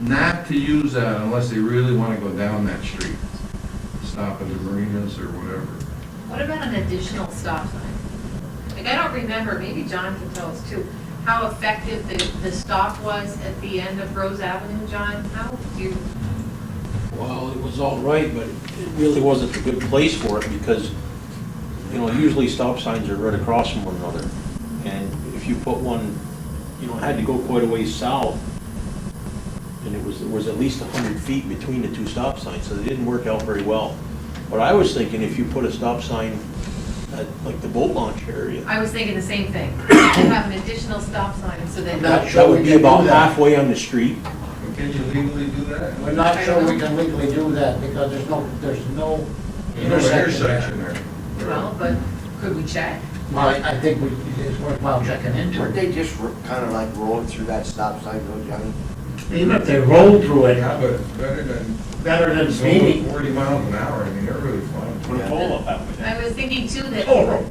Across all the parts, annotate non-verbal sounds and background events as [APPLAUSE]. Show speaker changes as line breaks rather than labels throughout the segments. not to use that unless they really want to go down that street, stop at the marinas or whatever.
What about an additional stop sign? Like, I don't remember, maybe John can tell us too, how effective the, the stop was at the end of Rose Avenue, John? How do you,
Well, it was all right, but it really wasn't a good place for it because, you know, usually stop signs are right across from one another. And if you put one, you know, it had to go quite a ways south. And it was, there was at least 100 feet between the two stop signs, so they didn't work out very well. But I was thinking if you put a stop sign at like the boat launch area,
I was thinking the same thing. [COUGHS] Have an additional stop sign so that.
I'm not
that
sure
that
we
would be
can do
about
that.
halfway on the street.
But Can you legally do that?
We're not sure we can legally do that because there's no, there's no
There's no
intersection
intersection
there.
there.
Well, but could we check?
Well, I I think we, it's worthwhile checking
Weren't
into it.
they just kind of like rolling through that stop sign though, Johnny?
Even if they roll through
Yeah,
it,
but it's better than
better than
going
speeding.
forty miles an hour, I mean, they're really fun.
[LAUGHS]
Put a pole up halfway
I was thinking too that
Oh,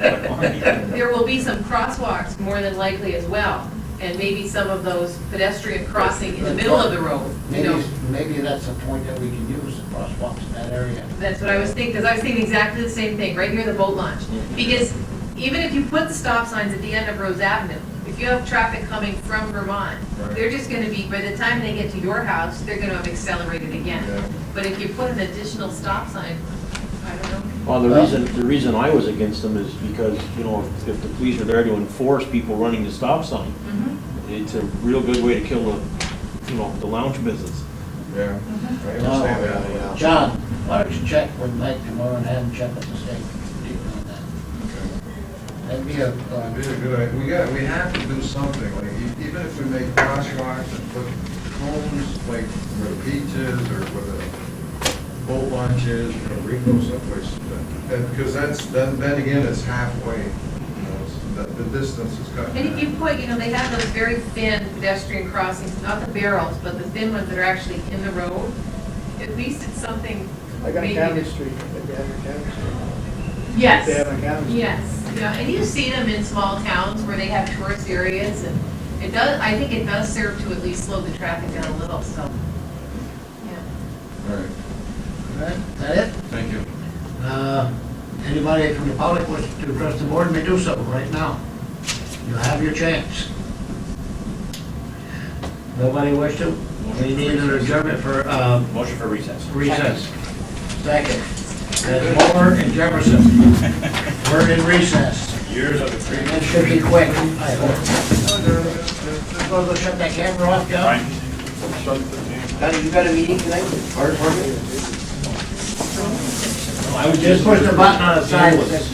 there.
there will be some crosswalks more than likely as well. And maybe some of those pedestrian crossing in the middle of the road, you know?
Maybe, maybe that's a point that we can use, the crosswalks in that area.
That's what I was thinking, because I was thinking exactly the same thing, right near the boat launch. Because even if you put the stop signs at the end of Rose Avenue, if you have traffic coming from Vermont,
Right.
they're just gonna be, by the time they get to your house, they're gonna have accelerated
Yeah.
again. But if you put an additional stop sign, I don't know.
Well, the
Well-
reason, the reason I was against them is because, you know, if- if the police are there to enforce people running the stop sign,
Mm-hmm.
it's a real good way to kill the, you know, the lounge business.
Yeah, I
Oh,
understand that.
John, why don't you check with Mike tomorrow and have him check with the state. on that?
Okay.
That'd be a,
It'd
uh,
be a good idea. We got, we have to do something, like, e- even if we make crosswalks and put cones, like, where the beaches or where the boat launches, you know, Rico someplace. that- that- Because that's, then, then again, it's halfway, you know, it's- the, the distance is cut.
And if you put, you know, they have those very thin pedestrian crossings, not the barrels, but the thin ones that are actually in the road, at least it's something.
Like on
maybe-
County Street, like they have on County Street.
Yes.
They have on County Street.
Yes, yeah, and you see them in small towns where they have tourist areas, and it does, I think it does serve to at least slow the traffic down a little, so. yeah.
All right,
is that it?
thank you.
Uh, Anybody from the public wants to address the board may do so right now. You have your chance. Nobody wish to? We need an adjournment for uh,
Motion for recess.
recess. Second. That's Moore and Jefferson. We're in recess.
Years of
And That should be quick, I hope. Go go shut that camera off, John.
Johnny, you got a meeting tonight with the fire department?
Just push the button on the side.